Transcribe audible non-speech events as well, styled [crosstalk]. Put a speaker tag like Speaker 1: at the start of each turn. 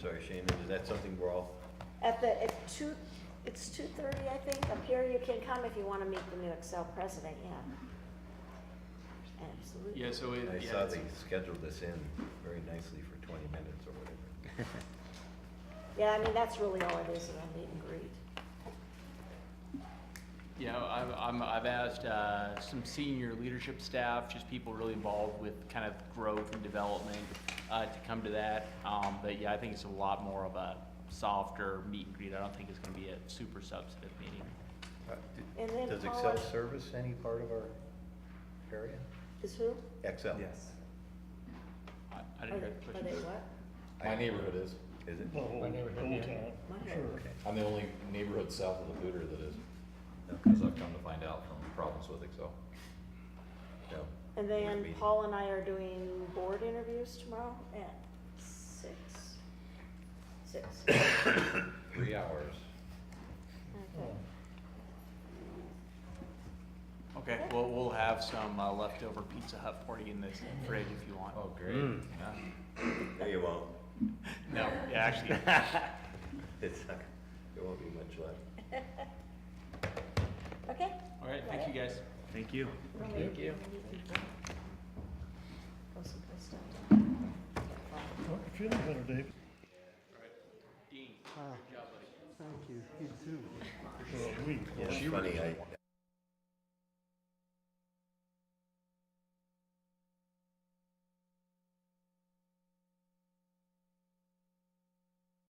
Speaker 1: sorry, Shannon, is that something we're all,
Speaker 2: At the, at two, it's two thirty, I think, up here, you can come if you wanna meet the new Excel president, yeah. Absolutely.
Speaker 3: Yeah, so it,
Speaker 1: I
Speaker 3: yeah,
Speaker 1: saw
Speaker 3: it's-
Speaker 1: they scheduled this in very nicely for twenty minutes or whatever.
Speaker 2: Yeah, I mean, that's really all it is, is a meet and greet.
Speaker 3: you know, I'm, I'm, I've asked, uh, some senior leadership staff, just people really involved with kind of growth and development, uh, to come to that. Um, but yeah, I think it's a lot more of a softer meet and greet. I don't think it's gonna be a super substantive meeting.
Speaker 1: Uh,
Speaker 2: And
Speaker 1: d-
Speaker 2: then
Speaker 1: Does
Speaker 2: Paula-
Speaker 1: Excel service any part of our area?
Speaker 2: Is who?
Speaker 1: Excel?
Speaker 4: Yes.
Speaker 3: I, I
Speaker 2: Are
Speaker 3: didn't hear
Speaker 2: they-
Speaker 3: the
Speaker 2: Are they
Speaker 3: question.
Speaker 2: what?
Speaker 5: My neighborhood is.
Speaker 1: Is it?
Speaker 6: The whole,
Speaker 5: My
Speaker 6: the
Speaker 5: neighborhood,
Speaker 6: whole
Speaker 5: yeah.
Speaker 6: town.
Speaker 2: My
Speaker 6: Sure.
Speaker 5: I'm the only neighborhood south of the Hooter that is,
Speaker 1: Okay.
Speaker 5: as I've come to find out from problems with Excel.
Speaker 1: No.
Speaker 2: And
Speaker 1: Would
Speaker 2: then
Speaker 1: be-
Speaker 2: Paul and I are doing board interviews tomorrow at six. Six, [coughs]
Speaker 5: Three hours.
Speaker 2: okay.
Speaker 3: Okay, well, we'll have some uh, leftover Pizza Hut party in the fridge if you want.
Speaker 5: Oh, great.
Speaker 3: Yeah.
Speaker 1: No, you won't.
Speaker 3: No, yeah, actually,
Speaker 1: It's not, there won't be much left.
Speaker 2: [laughs] Okay.
Speaker 3: all right, thank you guys.
Speaker 4: Thank you.
Speaker 5: Thank you.
Speaker 2: Go someplace down.
Speaker 6: Well, you're Feeling better, David?
Speaker 3: Dean,
Speaker 7: Ah,
Speaker 3: good job,
Speaker 7: Thank
Speaker 3: buddy.
Speaker 7: you, you too.
Speaker 6: For a week.
Speaker 1: It's funny, I,